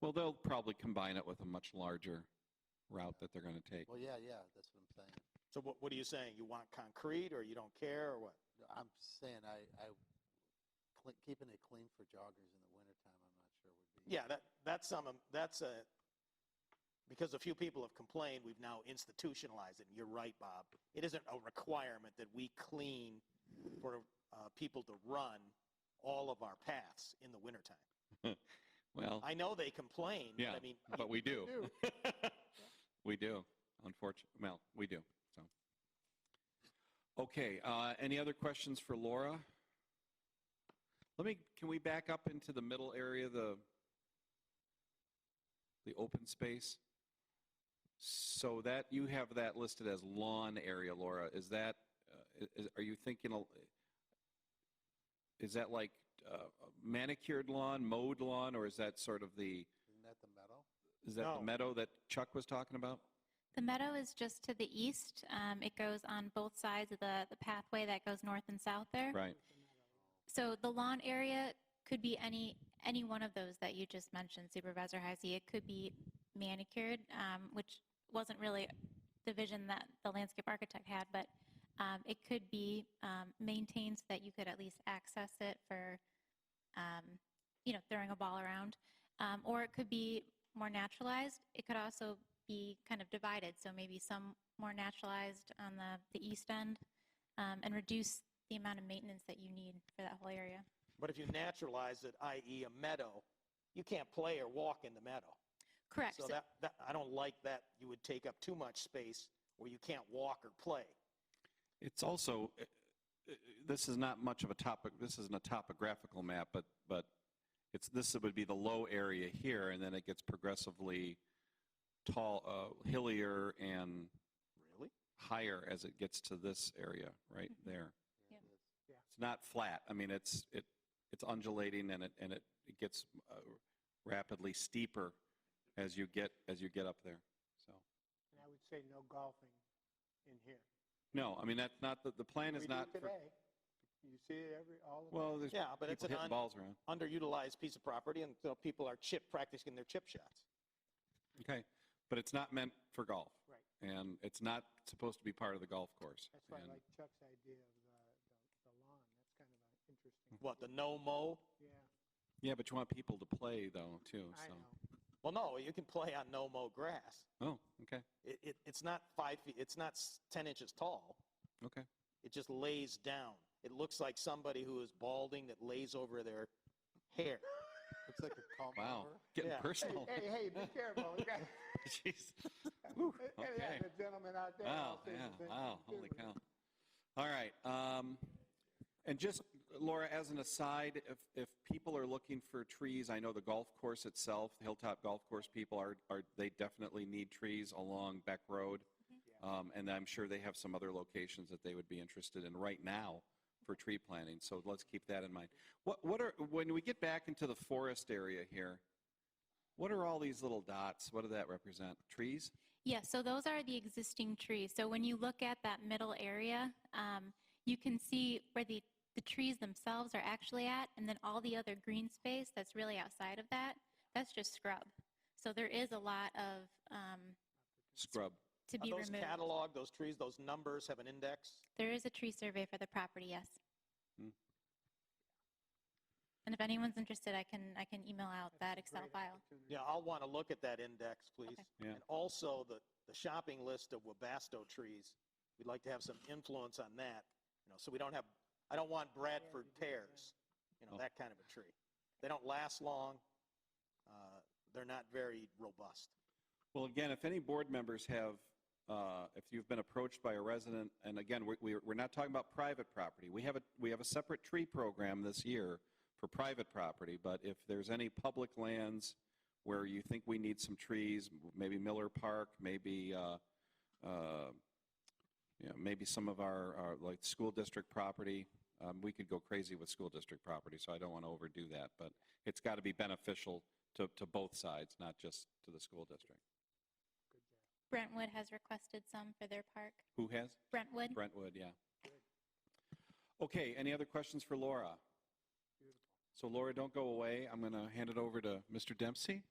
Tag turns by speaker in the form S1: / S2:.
S1: Well, they'll probably combine it with a much larger route that they're going to take.
S2: Well, yeah, yeah, that's what I'm saying.
S3: So what, what are you saying? You want concrete or you don't care or what?
S2: No, I'm saying I, I, cle- keeping it clean for joggers in the wintertime, I'm not sure would be.
S3: Yeah, that, that's some, that's a, because a few people have complained, we've now institutionalized it. And you're right, Bob. It isn't a requirement that we clean for uh, people to run all of our paths in the wintertime.
S1: Well,
S3: I know they complain, but
S1: Yeah,
S3: I mean,
S1: but we do.
S2: do.
S1: We do, unfortunately. Well, we do, so. Okay, uh, any other questions for Laura? Let me, can we back up into the middle area, the, the open space? So that, you have that listed as lawn area, Laura. Is that, uh, i- is- are you thinking, a- is that like uh, manicured lawn, mowed lawn, or is that sort of the,
S2: Isn't that the metal?
S1: is that
S3: No.
S1: the meadow that Chuck was talking about?
S4: The meadow is just to the east. Um, It goes on both sides of the the pathway that goes north and south there.
S1: Right.
S4: So the lawn area could be any, any one of those that you just mentioned, Supervisor Heisey. It could be manicured, um, which wasn't really the vision that the landscape architect had, but um, it could be um, maintained so that you could at least access it for, um, you know, throwing a ball around. Um, Or it could be more naturalized. It could also be kind of divided, so maybe some more naturalized on the, the east end um, and reduce the amount of maintenance that you need for that whole area.
S3: but if you naturalize it, i.e. a meadow, you can't play or walk in the meadow.
S4: Correct.
S3: So that, that, I don't like that you would take up too much space where you can't walk or play.
S1: It's also, uh, uh, this is not much of a topic, this isn't a topographical map, but, but it's, this would be the low area here, and then it gets progressively tall, uh, hillier and
S3: Really? Hmm.
S1: higher as it gets to this area right
S4: Mhm.
S1: there.
S2: Yeah,
S4: Yeah.
S2: it is.
S1: It's not flat. I mean, it's, it, it's undulating and it, and it, it gets uh, rapidly steeper as you get, as you get up there, so.
S5: And I would say no golfing in here.
S1: No, I mean, that's not, the, the plan
S5: We
S1: is
S5: do
S1: not for,
S5: Today, you see it every, all of
S1: well, there's
S3: Yeah, but it's
S1: people
S3: an
S1: hitting
S3: un-
S1: balls around.
S3: underutilized piece of property, and so people are chip practicing their chip shots.
S1: Okay, but it's not meant for golf.
S5: Right.
S1: And it's not supposed to be part of the golf course.
S5: That's why I
S1: And-
S5: like Chuck's idea of the, the- the lawn. That's kind of an interesting.
S3: What, the no mow?
S5: Yeah,
S1: Yeah, but you want people to play though, too,
S5: I
S1: so.
S5: know.
S3: Well, no, you can play on no mow grass.
S1: Oh, okay,
S3: It, it, it's not five feet, it's not s- 10 inches tall.
S1: okay.
S3: It just lays down. It looks like somebody who is balding that lays over their hair.
S2: Looks like a comb
S1: Wow,
S2: over.
S1: getting
S3: Yeah.
S1: personal.
S5: Hey, hey, hey, be careful. We got-
S1: Jeez.
S5: Hey,
S1: okay.
S5: yeah, The gentleman out there.
S1: Wow,
S5: I'll say the
S1: yeah,
S5: same thing
S1: wow, holy
S5: too.
S1: cow. All right, um, and just, Laura, as an aside, if, if people are looking for trees, I know the golf course itself, the Hilltop Golf Course people are, are, they definitely need trees along Beck Road. Um, and I'm sure they have some other locations that they would be interested in right now for tree planting, so let's keep that in mind. What, what are, when we get back into the forest area here, what are all these little dots? What do that represent? Trees?
S4: Yeah, so those are the existing trees. So when you look at that middle area, um, you can see where the, the trees themselves are actually at, and then all the other green space that's really outside of that, that's just scrub. So there is a lot of, um,
S1: Scrub?
S4: to
S3: Are
S4: be
S3: those
S4: removed.
S3: cataloged, those trees, those numbers have an index?
S4: There is a tree survey for the property, yes.
S1: Hmm.
S4: And if anyone's interested, I can, I can email out
S5: That's
S4: that
S5: a
S4: Excel
S5: great
S4: file.
S5: opportunity.
S3: Yeah, I'll want to look at that index, please.
S1: Yeah.
S3: And also the, the shopping list of Wabasto trees. We'd like to have some influence on that, you know, so we don't have, I don't want Bradford
S5: you do, yeah.
S3: pears, you know,
S1: Oh.
S3: that kind of a tree. They don't last long. Uh, They're not very robust.
S1: Well, again, if any board members have, uh, if you've been approached by a resident, and again, we- we- we're not talking about private property. We have a, we have a separate tree program this year for private property, but if there's any public lands where you think we need some trees, maybe Miller Park, maybe, uh, uh, you know, maybe some of our, our, like, school district property, um, we could go crazy with school district property, so I don't want to overdo that, but it's got to be beneficial to, to both sides, not just to the school district.
S5: Good job.
S4: Brentwood has requested some for their park.
S1: Who has?
S4: Brentwood?
S1: Brentwood, yeah. Okay, any other questions for Laura?
S5: Beautiful.
S1: So Laura, don't go away. I'm going to hand it over to Mr. Dempsey.